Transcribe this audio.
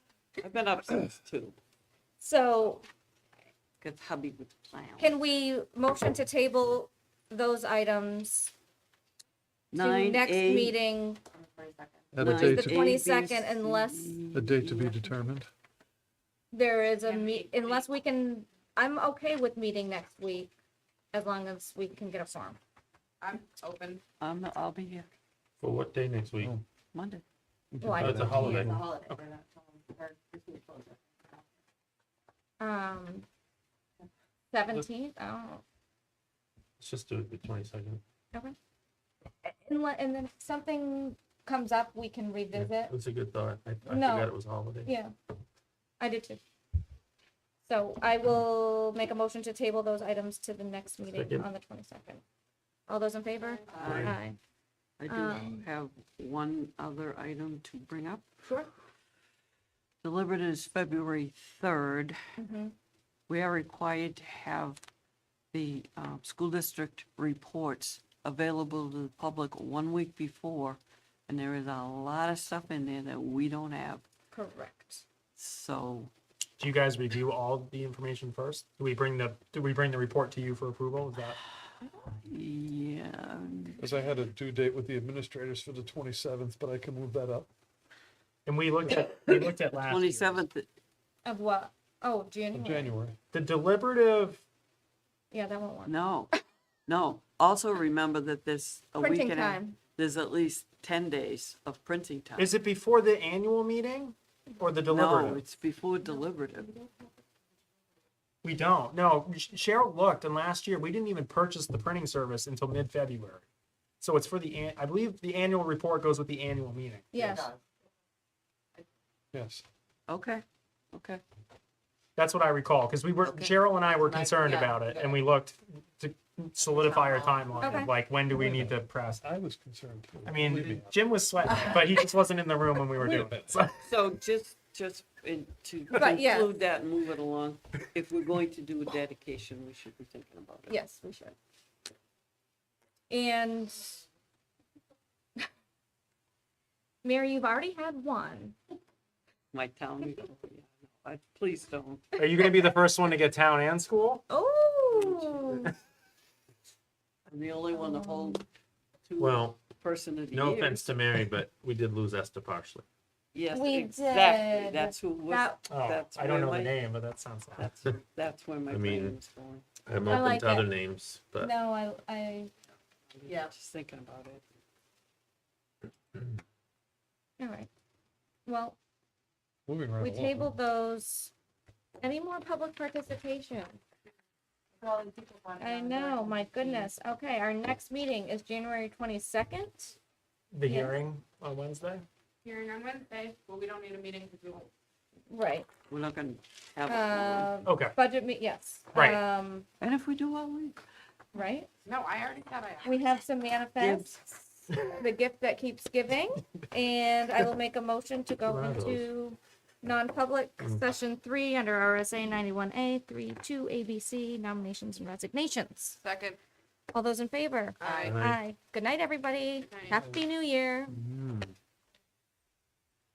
I've been up since two, So because hubby was plowing. can we motion to table those items to Nine, next A, meeting? At a nine, date, The to- 22nd, A, B, unless- C, a date to E, be F. determined. There is a meet, unless we can, I'm okay with meeting next week, as long as we can get a form. I'm open. I'm, I'll be here For what day next week? Oh. Monday. Well, I- That's a holiday. The holiday, Okay. we're not telling- or this week closer. Um, seventeenth, I don't know. Let's just do it the twenty-second. Unle- And then if something comes up, we can revisit. That's a good thought. I, I No. forgot it was a holiday. Yeah, I did too. So I will make a motion to table those items to the next meeting Second. on the twenty-second. All those in favor? Aye. I do Um, have one other item to bring up. Sure. Delivered is February third. Mhm. We are required to have the uh, school district reports available to the public one week before. And there is a lot of stuff in there that we don't have. Correct. So Do you guys review all the information first? Do we bring the, do we bring the report to you for approval? Is that? Yeah, Because I had a due date with the administrators for the 27th, but I can move that up. And we looked at, we looked at last year. twenty-seventh, Of what? Oh, In January. January, The deliberative, Yeah, that won't work. no, no. Also remember that there's a week Printing and a, time. there's at least ten days of printing time. is it before the annual meeting or the No, deliberative? it's before deliberative. We don't. No, Sh- Cheryl looked and last year we didn't even purchase the printing service until mid-February. So it's for the, an- I believe the annual report goes with the annual meeting. Yes. yes. Okay, okay. That's what I recall, because we were, Okay. Cheryl and I were And I- concerned yeah, about it, yeah. and we looked to solidify our timeline, Okay. of like, when do we need to press? I was concerned. too. I Believe me. mean, Jim was sweating, but he just wasn't in the room when we were Wait a doing minute. it, so. So just, just in- to Right, yeah. conclude that and move it along, if we're going to do a dedication, we should be thinking about it. Yes, we should. And Mary, you've already had one. My town, meeting, yeah, no, I- please don't. Are you gonna be the first one to get town and school? Oh. I'm the only one to hold two Well, person of the year. no offense to Mary, but we did lose Esther partially. Yes, We exactly. did. That's who was, That, Oh, That's I don't where know my- the name, but that sounds like. that's, that's where my I brain mean, was going. I'm I open like to other it. names, but no, I, I, Yeah. Just thinking about it. all right. Well, Moving right we along. tabled those. Any more public participation? Well, and people want to I go to know, work. my goodness. Okay, our next meeting is January twenty-second. The Yeah. hearing on Wednesday? Hearing on Wednesday, but we don't need a meeting because we won't. Right, We're not gonna have it. long. uh, Okay, budget meet, yes. Oh. Right. Um, And if we do, I'll leave. right? No, I already said I. We have some manifests, the gift that keeps giving, and I will make a motion to go Wow. into non-public session three under RSA ninety-one A, three, two, ABC, nominations and resignations. Second, All those in favor? I. Aye. Good night, everybody. Good night. Happy New Year. Mm.